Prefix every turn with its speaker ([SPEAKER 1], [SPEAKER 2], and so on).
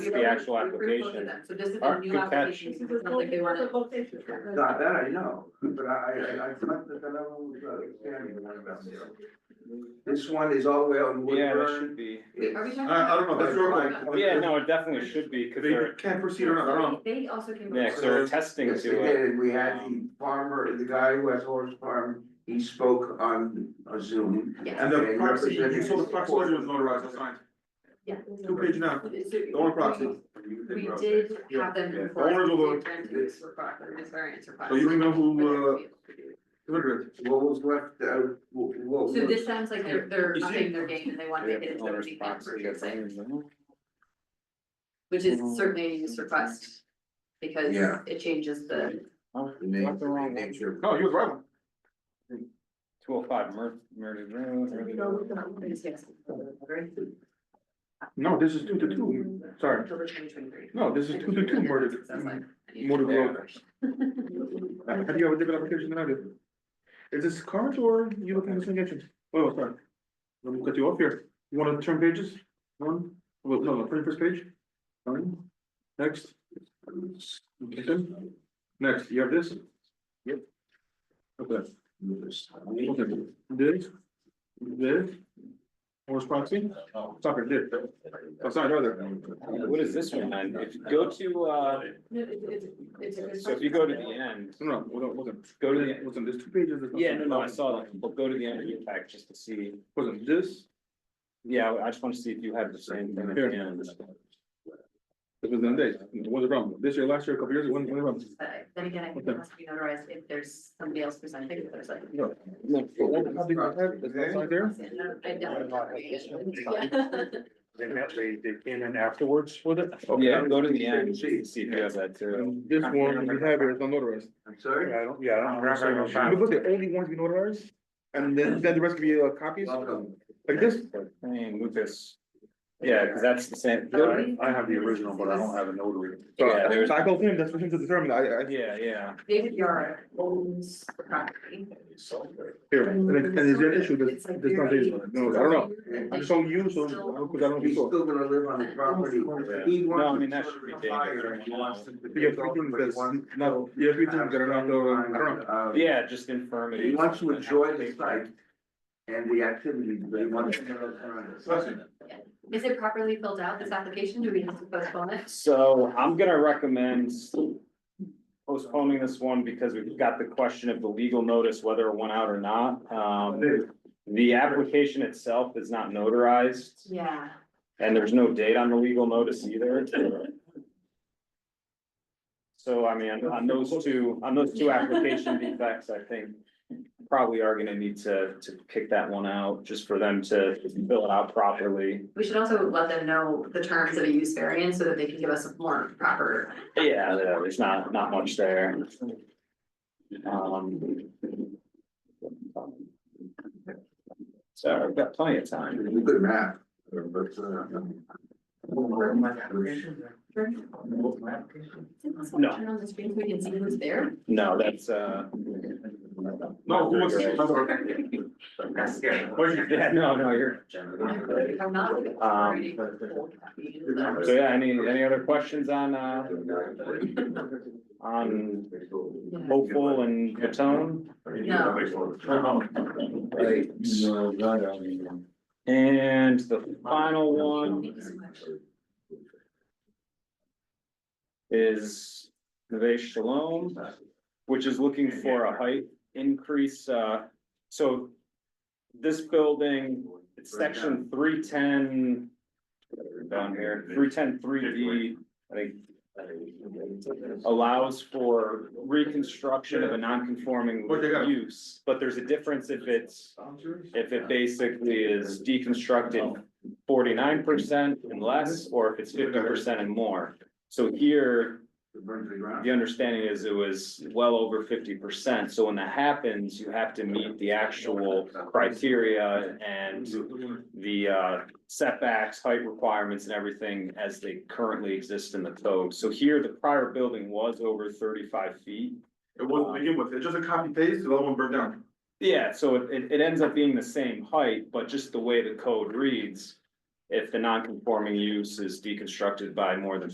[SPEAKER 1] the actual application.
[SPEAKER 2] So this is a new
[SPEAKER 1] Architect-
[SPEAKER 2] application, so it's not like they wanna.
[SPEAKER 3] Not that I know, but I, I, I thought that the level was uh, expanding the one about zero. This one is all the way on
[SPEAKER 1] Yeah, that should
[SPEAKER 3] Woodburn.
[SPEAKER 1] be,
[SPEAKER 2] Wait, are we talking
[SPEAKER 4] I, I don't know, that's your
[SPEAKER 2] about-
[SPEAKER 4] call.
[SPEAKER 1] yeah, no, it definitely should be, because
[SPEAKER 4] They
[SPEAKER 1] they're,
[SPEAKER 4] can't proceed on their own.
[SPEAKER 2] They also came. up
[SPEAKER 1] yeah,
[SPEAKER 2] with-
[SPEAKER 1] 'cause they're attesting
[SPEAKER 3] Yes, they
[SPEAKER 1] to it.
[SPEAKER 3] did, and we had the farmer, the guy who has horse farm, he spoke on a Zoom.
[SPEAKER 2] Yes,
[SPEAKER 4] And the proxy, you saw the proxy was notarized, and signed,
[SPEAKER 2] yeah.
[SPEAKER 4] two page now,
[SPEAKER 2] It's-
[SPEAKER 4] the only proxy.
[SPEAKER 2] We did have them.
[SPEAKER 4] Yeah,
[SPEAKER 2] before,
[SPEAKER 4] the owners of the-
[SPEAKER 2] it's variance requirement, it's variance
[SPEAKER 4] So you don't know who, uh,
[SPEAKER 2] requirement.
[SPEAKER 4] Deliberate.
[SPEAKER 3] What was left, uh, what, what?
[SPEAKER 2] So this sounds like they're, they're
[SPEAKER 4] You see-
[SPEAKER 2] upping their game and they want to make it into a
[SPEAKER 1] Owner's
[SPEAKER 2] deep
[SPEAKER 1] proxy, I
[SPEAKER 2] version,
[SPEAKER 1] think.
[SPEAKER 2] which is
[SPEAKER 4] Mm-hmm.
[SPEAKER 2] certainly a use request. Because
[SPEAKER 3] Yeah.
[SPEAKER 2] it changes the.
[SPEAKER 1] Oh,
[SPEAKER 3] The name,
[SPEAKER 1] that's the
[SPEAKER 3] the
[SPEAKER 1] wrong one.
[SPEAKER 3] nature of.
[SPEAKER 4] No, you was right.
[SPEAKER 1] Two oh five Mer- Meredith Road, Meredith Road.
[SPEAKER 4] No, this is two to two, sorry,
[SPEAKER 2] October twenty twenty-three.
[SPEAKER 4] no, this is two to two, murdered. Murdered road. Have you ever did an application than I did? Is this current or you looking at this engagement? Oh, sorry. Let me cut you off here, you wanna turn pages? One, well, no, no, pretty first page. One, next. Okay, then. Next, you have this? Yep. Okay. Okay, this, this, horse proxy, stop it, this, Oh, that's not other.
[SPEAKER 1] What is this one then? If you go to, uh,
[SPEAKER 2] No, it's, it's, it's a good.
[SPEAKER 1] so if you go to the end,
[SPEAKER 4] No, no, hold on, hold on.
[SPEAKER 1] go to the,
[SPEAKER 4] Listen, there's two pages. there's
[SPEAKER 1] yeah, no, no, I saw that, but go to the end of your pack just to see.
[SPEAKER 4] Listen, this,
[SPEAKER 1] Yeah, I just want to see if you had the same thing at the end.
[SPEAKER 4] this was the other day, what's wrong, this year, last year, a couple years, when, when, when?
[SPEAKER 2] Uh, Then again, I think it has to be notarized if there's somebody else presenting, if there's like.
[SPEAKER 4] No.
[SPEAKER 1] No,
[SPEAKER 4] How big is that? Is that side there?
[SPEAKER 2] I don't-
[SPEAKER 5] They met, they, they came in afterwards with it.
[SPEAKER 4] Okay.
[SPEAKER 1] Yeah, go to the end, just to see if you have that too.
[SPEAKER 4] And This one we have here is not notarized.
[SPEAKER 3] I'm sorry?
[SPEAKER 5] Yeah, I don't, yeah, I don't. remember if I-
[SPEAKER 4] Because the only ones we notarized, and then, then the rest can be uh, copies,
[SPEAKER 3] Welcome.
[SPEAKER 4] like this, uh,
[SPEAKER 1] Hey, Lucas. Yeah, because that's the same.
[SPEAKER 2] No.
[SPEAKER 5] I I have the original, but I don't have a notary.
[SPEAKER 4] so
[SPEAKER 1] Yeah, there's-
[SPEAKER 4] I told him, that's for him to determine, I, I,
[SPEAKER 1] Yeah, yeah.
[SPEAKER 2] David Yara owns the property.
[SPEAKER 4] here, and then- and is there an issue, there's,
[SPEAKER 2] It's like
[SPEAKER 4] there's not,
[SPEAKER 2] very-
[SPEAKER 4] no, I don't know.
[SPEAKER 2] Like,
[SPEAKER 4] I just told you, so,
[SPEAKER 2] still-
[SPEAKER 4] because I don't
[SPEAKER 3] He's
[SPEAKER 4] think so.
[SPEAKER 3] still gonna live on the property. He
[SPEAKER 1] No, I mean,
[SPEAKER 3] wants
[SPEAKER 1] that
[SPEAKER 3] to
[SPEAKER 1] should be
[SPEAKER 3] sort of
[SPEAKER 1] big.
[SPEAKER 3] retire. He wants to.
[SPEAKER 4] You have three things that's not, you have three things that are not, uh, I don't know.
[SPEAKER 3] Uh,
[SPEAKER 1] Yeah, just infirmity.
[SPEAKER 3] He wants to enjoy the site and the activities, but he wants to.
[SPEAKER 2] Is it properly filled out, this application? Do we have to postpone it?
[SPEAKER 1] So I'm gonna recommend postponing this one because we've got the question of the legal notice, whether it went out or not. Um, the application itself is not notarized
[SPEAKER 2] Yeah.
[SPEAKER 1] and there's no date on the legal notice either. So I mean, on those two, on those two application defects, I think probably are gonna need to, to kick that one out just for them to fill it out properly.
[SPEAKER 2] We should also let them know the terms of a use variance so that they can give us a more proper.
[SPEAKER 1] Yeah, yeah, Uh, there's not, not much there. Um. So I've got plenty of time.
[SPEAKER 3] Good map, but, uh.
[SPEAKER 1] No.
[SPEAKER 2] Turn on the screen so we can see who's there.
[SPEAKER 1] No, that's, uh.
[SPEAKER 4] No, who wants to?
[SPEAKER 2] That's scary.
[SPEAKER 1] Yeah, no, no, you're.
[SPEAKER 2] I'm not.
[SPEAKER 1] Um, So yeah, any, any other questions on, uh, on Hopeful and Matone? And the final one is Neve Shalom, which is looking for a height increase, uh, so this building, it's section three ten down here, three ten three D, I think allows for reconstruction of a non-conforming
[SPEAKER 4] What they got?
[SPEAKER 1] use, but there's a difference if it's if it basically is deconstructed forty-nine percent and less, or if it's fifty percent and more. So here, the understanding is it was well over fifty percent, so when that happens, you have to meet the actual criteria and the uh setbacks, height requirements and everything as they currently exist in the code. So here, the prior building was over thirty-five feet.
[SPEAKER 4] It wasn't to begin with, it's just a copy paste, the other one burned down.
[SPEAKER 1] Yeah, so it, it, it ends up being the same height, but just the way the code reads. If the non-conforming use is deconstructed by more than